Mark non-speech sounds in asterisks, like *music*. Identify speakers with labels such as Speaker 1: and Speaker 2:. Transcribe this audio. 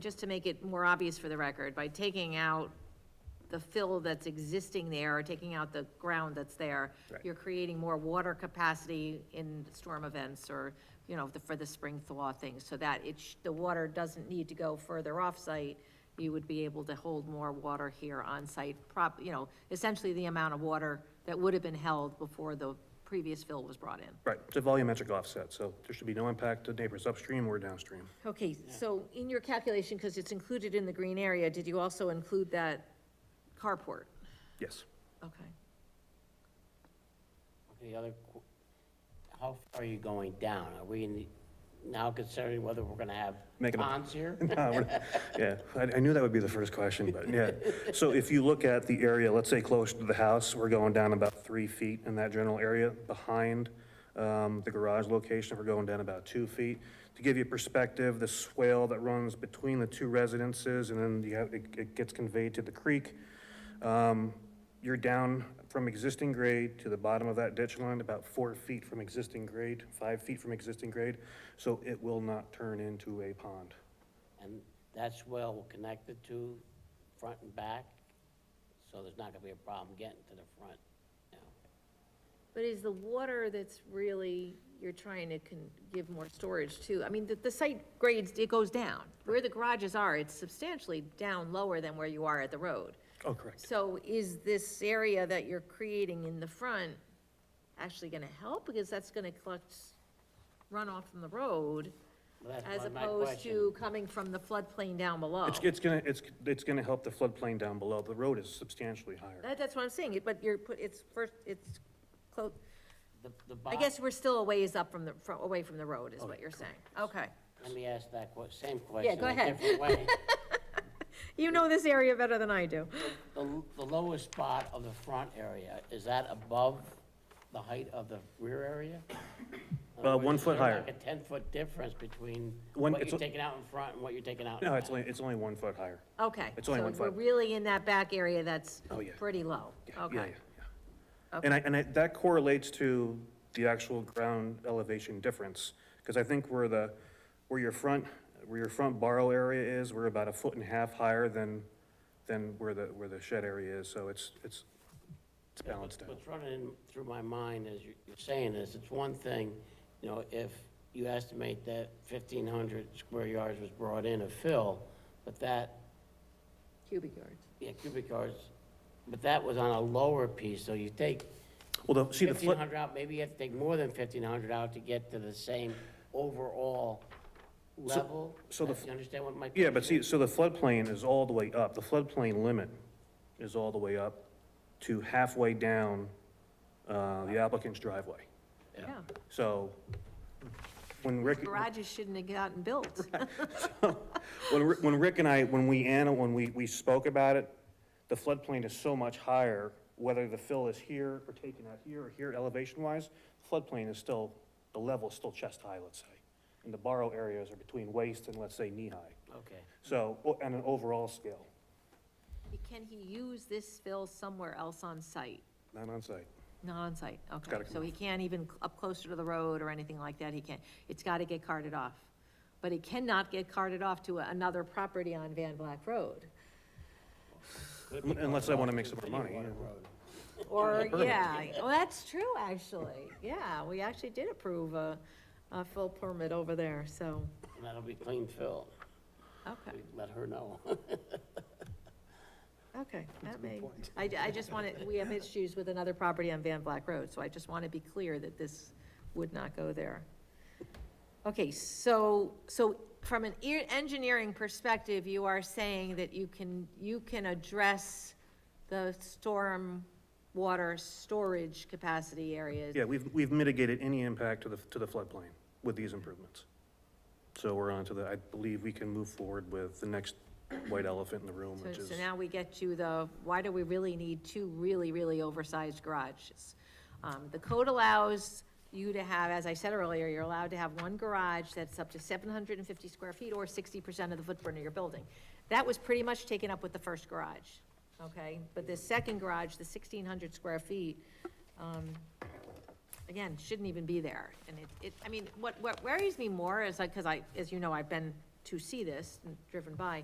Speaker 1: just to make it more obvious for the record, by taking out the fill that's existing there, or taking out the ground that's there,
Speaker 2: Right.
Speaker 1: you're creating more water capacity in storm events, or, you know, the- for the spring thaw thing, so that it, sh- the water doesn't need to go further off-site, you would be able to hold more water here on-site, prop, you know, essentially the amount of water that would have been held before the previous fill was brought in.
Speaker 2: Right, it's a volumetric offset, so there should be no impact to neighbors upstream or downstream.
Speaker 1: Okay, so in your calculation, because it's included in the green area, did you also include that carport?
Speaker 2: Yes.
Speaker 1: Okay.
Speaker 3: Okay, the other, qu- how far are you going down? Are we in the- now considering whether we're gonna have
Speaker 2: Making a-
Speaker 3: ponds here?
Speaker 2: *laughs* Uh, we're- Yeah, I, I knew that would be the first question, but yeah. So if you look at the area, let's say close to the house, we're going down about three feet in that general area. Behind, um, the garage location, we're going down about two feet. To give you perspective, the swale that runs between the two residences and then you have, it, it gets conveyed to the creek. Um, you're down from existing grade to the bottom of that ditch line, about four feet from existing grade, five feet from existing grade. So it will not turn into a pond.
Speaker 3: And that's well connected to front and back, so there's not gonna be a problem getting to the front now.
Speaker 1: But is the water that's really, you're trying to con, give more storage to, I mean, the, the site grades, it goes down. Where the garages are, it's substantially down lower than where you are at the road.
Speaker 2: Oh, correct.
Speaker 1: So is this area that you're creating in the front actually gonna help? Because that's gonna collect runoff from the road,
Speaker 3: Well, that's
Speaker 1: as
Speaker 3: my- my
Speaker 1: opposed
Speaker 3: question.
Speaker 1: to coming from the floodplain down below.
Speaker 2: It's, it's gonna, it's, it's gonna help the floodplain down below. The road is substantially higher.
Speaker 1: That, that's what I'm saying, it- but you're, put- it's first, it's close,
Speaker 3: The, the
Speaker 1: I
Speaker 3: bond-
Speaker 1: guess we're still a ways up from the, from, away from the road, is what you're saying, okay.
Speaker 3: Let me ask that que, same question.
Speaker 1: go
Speaker 3: a
Speaker 1: ahead. *laughs*
Speaker 3: different way.
Speaker 1: You know this area better than I do.
Speaker 3: The, l- the lowest spot of the front area, is that above the height of the rear area? In other
Speaker 2: Uh,
Speaker 3: words,
Speaker 2: one
Speaker 3: is
Speaker 2: foot
Speaker 3: there
Speaker 2: higher.
Speaker 3: Like a ten-foot difference between
Speaker 2: One-
Speaker 3: what
Speaker 2: it's
Speaker 3: you're
Speaker 2: a-
Speaker 3: taking out in front and what you're taking out in
Speaker 2: No,
Speaker 3: back?
Speaker 2: it's only, it's only one foot higher.
Speaker 1: Okay.
Speaker 2: It's only one
Speaker 1: So we're
Speaker 2: foot.
Speaker 1: really in that back area that's
Speaker 2: Oh, yeah.
Speaker 1: pretty low,
Speaker 2: Yeah, yeah,
Speaker 1: okay.
Speaker 2: yeah, yeah. And I, and I, that correlates to the actual ground elevation difference. Because I think where the, where your front, where your front borrow area is, we're about a foot and a half higher than, than where the, where the shed area is. So it's, it's, it's
Speaker 3: Yeah,
Speaker 2: balanced
Speaker 3: what's-
Speaker 2: out.
Speaker 3: What's running in- through my mind as you- you're saying this, it's one thing, you know, if you estimate that fifteen hundred square yards was brought in of fill, but that,
Speaker 1: Cubic yards.
Speaker 3: yeah, cubic yards, but that was on a lower piece, so you take
Speaker 2: Well, the, see the
Speaker 3: fifteen
Speaker 2: flood,
Speaker 3: hundred out, maybe you have to take more than fifteen hundred out to get to the same overall level?
Speaker 2: so the
Speaker 3: Uh,
Speaker 2: f-
Speaker 3: You understand what my?
Speaker 2: Yeah, but
Speaker 3: question
Speaker 2: see,
Speaker 3: is?
Speaker 2: so the floodplain is all the way up, the floodplain limit is all the way up to halfway down, uh, the applicant's driveway.
Speaker 1: Yeah.
Speaker 2: So, when Rick,
Speaker 1: Garages shouldn't have gotten
Speaker 2: *laughs*
Speaker 1: built.
Speaker 2: when, Rick- when Rick and I, when we, Anna, when we, we spoke about it, the floodplain is so much higher, whether the fill is here or taken out here or here elevation-wise, floodplain is still, the level is still chest-high, let's say. And the borrow areas are between waist and, let's say, knee-high.
Speaker 3: Okay.
Speaker 2: So, o- on an overall scale,
Speaker 1: Can he use this fill somewhere else on site?
Speaker 2: not on site.
Speaker 1: Not on site, okay.
Speaker 2: gotta come
Speaker 1: So he can't even cl- up closer to the road or anything like that, he can't, it's gotta get carted off. But it cannot get carted off to a- another property on Van Black Road.
Speaker 3: Could be
Speaker 2: Unless
Speaker 3: going
Speaker 2: I wanna
Speaker 3: off
Speaker 2: make
Speaker 3: to
Speaker 2: some more
Speaker 3: Vineyard
Speaker 2: money,
Speaker 3: Water
Speaker 2: yeah.
Speaker 3: Road.
Speaker 1: Or, yeah, well, that's true, actually, yeah, we actually did approve a, a full permit over there, so,
Speaker 3: And that'll be clean fill.
Speaker 1: okay,
Speaker 3: We Let her know.
Speaker 1: okay, that may, I, I just wanted, we have issues with another property on Van Black Road, so I just want to be clear that this would not go there. Okay, so, so from an ear- engineering perspective, you are saying that you can, you can address the storm water storage capacity areas
Speaker 2: Yeah, we've, we've mitigated any impact to the, to the floodplain with these improvements. So we're on to the, I believe we can move forward with the next white elephant in the room,
Speaker 1: So,
Speaker 2: which is,
Speaker 1: so now we get to the, why do we really need two really, really oversized garages? Um, the code allows you to have, as I said earlier, you're allowed to have one garage that's up to seven hundred and fifty square feet or sixty percent of the footprint of your building. That was pretty much taken up with the first garage, okay? But the second garage, the sixteen hundred square feet, um, again, shouldn't even be there. And it, it, I mean, what, what worries me more is like, because I, as you know, I've been to see this, and driven by,